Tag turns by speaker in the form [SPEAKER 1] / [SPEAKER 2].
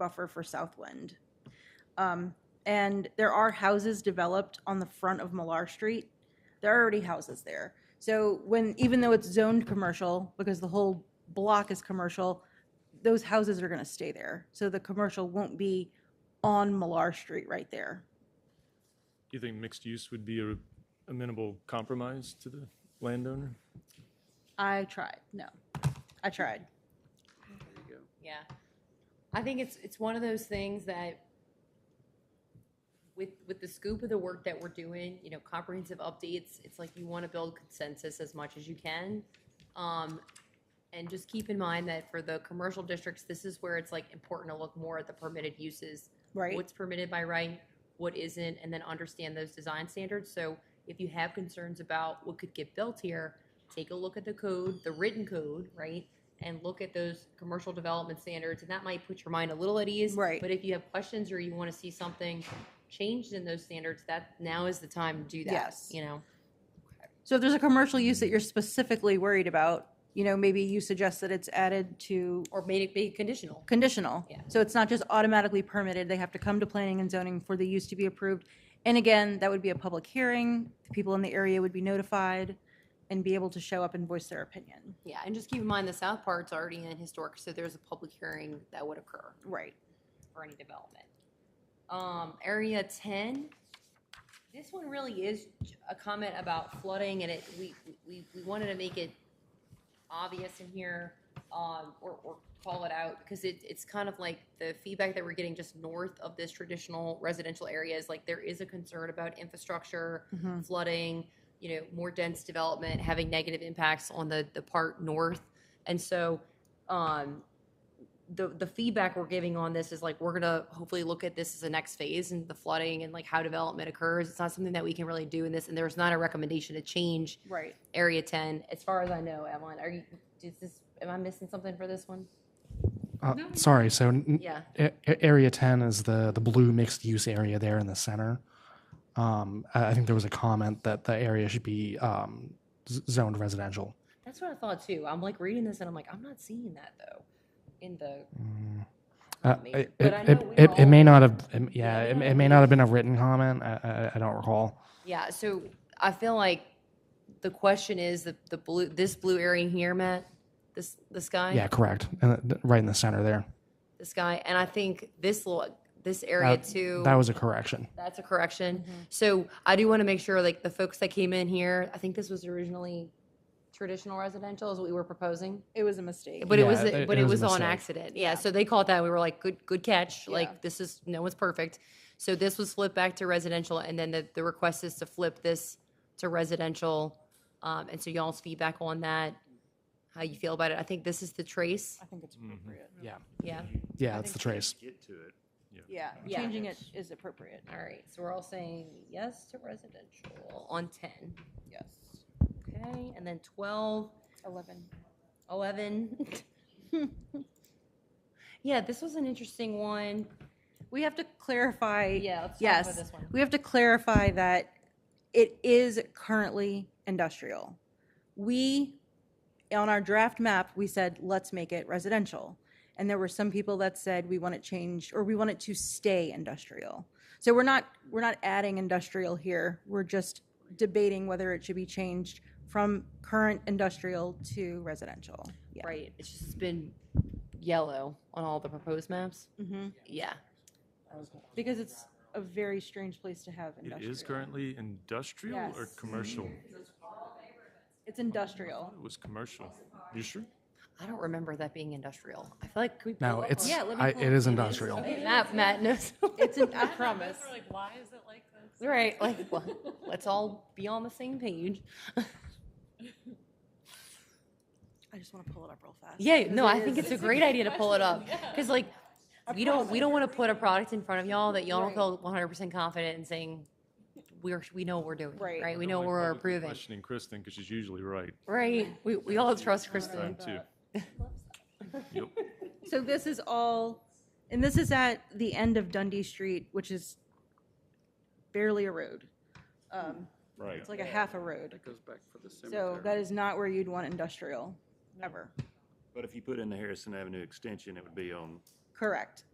[SPEAKER 1] buffer for Southwind. Um, and there are houses developed on the front of Millar Street. There are already houses there. So when, even though it's zoned commercial, because the whole block is commercial, those houses are gonna stay there. So the commercial won't be on Millar Street right there.
[SPEAKER 2] Do you think mixed use would be a amenable compromise to the landowner?
[SPEAKER 1] I tried, no, I tried.
[SPEAKER 3] Yeah. I think it's, it's one of those things that with, with the scoop of the work that we're doing, you know, comprehensive updates, it's like you want to build consensus as much as you can. Um, and just keep in mind that for the commercial districts, this is where it's like important to look more at the permitted uses.
[SPEAKER 1] Right.
[SPEAKER 3] What's permitted by right, what isn't, and then understand those design standards. So if you have concerns about what could get built here, take a look at the code, the written code, right? And look at those commercial development standards, and that might put your mind a little at ease.
[SPEAKER 1] Right.
[SPEAKER 3] But if you have questions or you want to see something changed in those standards, that now is the time to do that.
[SPEAKER 1] Yes.
[SPEAKER 3] You know.
[SPEAKER 1] So if there's a commercial use that you're specifically worried about, you know, maybe you suggest that it's added to
[SPEAKER 3] or made it be conditional.
[SPEAKER 1] conditional.
[SPEAKER 3] Yeah.
[SPEAKER 1] So it's not just automatically permitted, they have to come to planning and zoning for the use to be approved. And again, that would be a public hearing, the people in the area would be notified and be able to show up and voice their opinion.
[SPEAKER 3] Yeah, and just keep in mind the south part's already in historic, so there's a public hearing that would occur
[SPEAKER 1] Right.
[SPEAKER 3] for any development. Um, area ten, this one really is a comment about flooding, and it, we, we, we wanted to make it obvious in here, um, or, or call it out, because it, it's kind of like the feedback that we're getting just north of this traditional residential area is like, there is a concern about infrastructure,
[SPEAKER 1] Mhm.
[SPEAKER 3] flooding, you know, more dense development having negative impacts on the, the part north. And so, um, the, the feedback we're giving on this is like, we're gonna hopefully look at this as the next phase and the flooding and like how development occurs. It's not something that we can really do in this, and there's not a recommendation to change
[SPEAKER 1] Right.
[SPEAKER 3] Area ten, as far as I know, Evelyn, are you, is this, am I missing something for this one?
[SPEAKER 4] Uh, Sorry, so n-
[SPEAKER 3] Yeah.
[SPEAKER 4] a- a- Area 10 is the, the blue mixed use area there in the center. Um, I I think there was a comment that the area should be um, z- zoned residential.
[SPEAKER 3] That's what I thought too. I'm like reading this and I'm like, I'm not seeing that though in the.
[SPEAKER 4] Uh,
[SPEAKER 3] Maybe.
[SPEAKER 4] It
[SPEAKER 3] But I
[SPEAKER 4] it-
[SPEAKER 3] know
[SPEAKER 4] it-
[SPEAKER 3] we
[SPEAKER 4] it-
[SPEAKER 3] were
[SPEAKER 4] it may
[SPEAKER 3] all-
[SPEAKER 4] not have, um, yeah,
[SPEAKER 3] Yeah,
[SPEAKER 4] it
[SPEAKER 3] we
[SPEAKER 4] it may
[SPEAKER 3] were-
[SPEAKER 4] not have been a written comment. I- I I don't recall.
[SPEAKER 3] Yeah, so I feel like the question is that the blue, this blue area here, Matt, this, this guy?
[SPEAKER 4] Yeah, correct. And uh, th- th- Right in the center there.
[SPEAKER 3] This guy, and I think this little, this area
[SPEAKER 4] That
[SPEAKER 3] too.
[SPEAKER 4] that was a correction.
[SPEAKER 3] That's a correction. So I do want to make sure, like, the folks that came in here, I think this was originally traditional residential is what we were proposing.
[SPEAKER 1] It was a mistake.
[SPEAKER 3] But it was,
[SPEAKER 4] Yeah, it-
[SPEAKER 3] but
[SPEAKER 4] it
[SPEAKER 3] it
[SPEAKER 4] was
[SPEAKER 3] was
[SPEAKER 4] a
[SPEAKER 3] on
[SPEAKER 4] mistake.
[SPEAKER 3] accident. Yeah, so they caught that. We were like, good, good catch.
[SPEAKER 1] Yeah.
[SPEAKER 3] Like, this is, no one's perfect. So this was flipped back to residential and then the, the request is to flip this to residential. Um, and so y'all's feedback on that, how you feel about it. I think this is the trace.
[SPEAKER 1] I think it's appropriate.
[SPEAKER 4] Yeah.
[SPEAKER 3] Yeah.
[SPEAKER 4] Yeah, it's the trace.
[SPEAKER 5] Get to it.
[SPEAKER 1] Yeah,
[SPEAKER 3] Yeah.
[SPEAKER 1] changing it is appropriate,
[SPEAKER 3] All right. So we're all saying yes to residential on 10.
[SPEAKER 1] yes.
[SPEAKER 3] Okay, and then 12,
[SPEAKER 1] Eleven.
[SPEAKER 3] 11. yeah, this was an interesting one.
[SPEAKER 1] We have to clarify.
[SPEAKER 3] Yeah, let's talk about
[SPEAKER 1] Yes,
[SPEAKER 3] this one.
[SPEAKER 1] we have to clarify that it is currently industrial. We, on our draft map, we said, let's make it residential. And there were some people that said, we want it changed, or we want it to stay industrial. So we're not, we're not adding industrial here. We're just debating whether it should be changed from current industrial to residential. Yeah.
[SPEAKER 3] Right, it's just been yellow on all the proposed maps.
[SPEAKER 1] Mhm.
[SPEAKER 3] Yeah.
[SPEAKER 1] Because it's a very strange place to have
[SPEAKER 2] It
[SPEAKER 1] industrial.
[SPEAKER 2] is currently industrial or
[SPEAKER 1] Yes.
[SPEAKER 2] commercial?
[SPEAKER 3] Mm-hmm.
[SPEAKER 1] It's industrial.
[SPEAKER 2] It was commercial. You sure?
[SPEAKER 3] I don't remember that being industrial. I feel like could we
[SPEAKER 4] No,
[SPEAKER 3] pull up
[SPEAKER 4] it's,
[SPEAKER 3] on-
[SPEAKER 4] I- it is industrial.
[SPEAKER 3] Matt, Matt knows.
[SPEAKER 1] It's, an- I promise.
[SPEAKER 3] Right, like, well, let's all be on the same page.
[SPEAKER 1] I just want to pull it up real fast.
[SPEAKER 3] Yeah, no, I think it's a great idea to pull it up, because like, we don't, we don't want to put a product in front of y'all that y'all don't feel one hundred percent confident in saying, we're, we know what we're doing,
[SPEAKER 1] Right.
[SPEAKER 3] right? We
[SPEAKER 2] I
[SPEAKER 3] know
[SPEAKER 2] don't
[SPEAKER 3] what
[SPEAKER 2] like
[SPEAKER 3] we're
[SPEAKER 2] publicly
[SPEAKER 3] approving,
[SPEAKER 2] Questioning Kristen because she's usually right.
[SPEAKER 3] right? We, we all trust
[SPEAKER 2] Time
[SPEAKER 3] Kristen.
[SPEAKER 2] too. Yep.
[SPEAKER 1] So this is all, and this is at the end of Dundee Street, which is barely a road. Um,
[SPEAKER 2] Right.
[SPEAKER 1] It's like a half a road.
[SPEAKER 5] That goes back for the cemetery.
[SPEAKER 1] So that is not where you'd want industrial, ever.
[SPEAKER 5] But if you put in the Harrison Avenue extension, it would be on
[SPEAKER 1] Correct.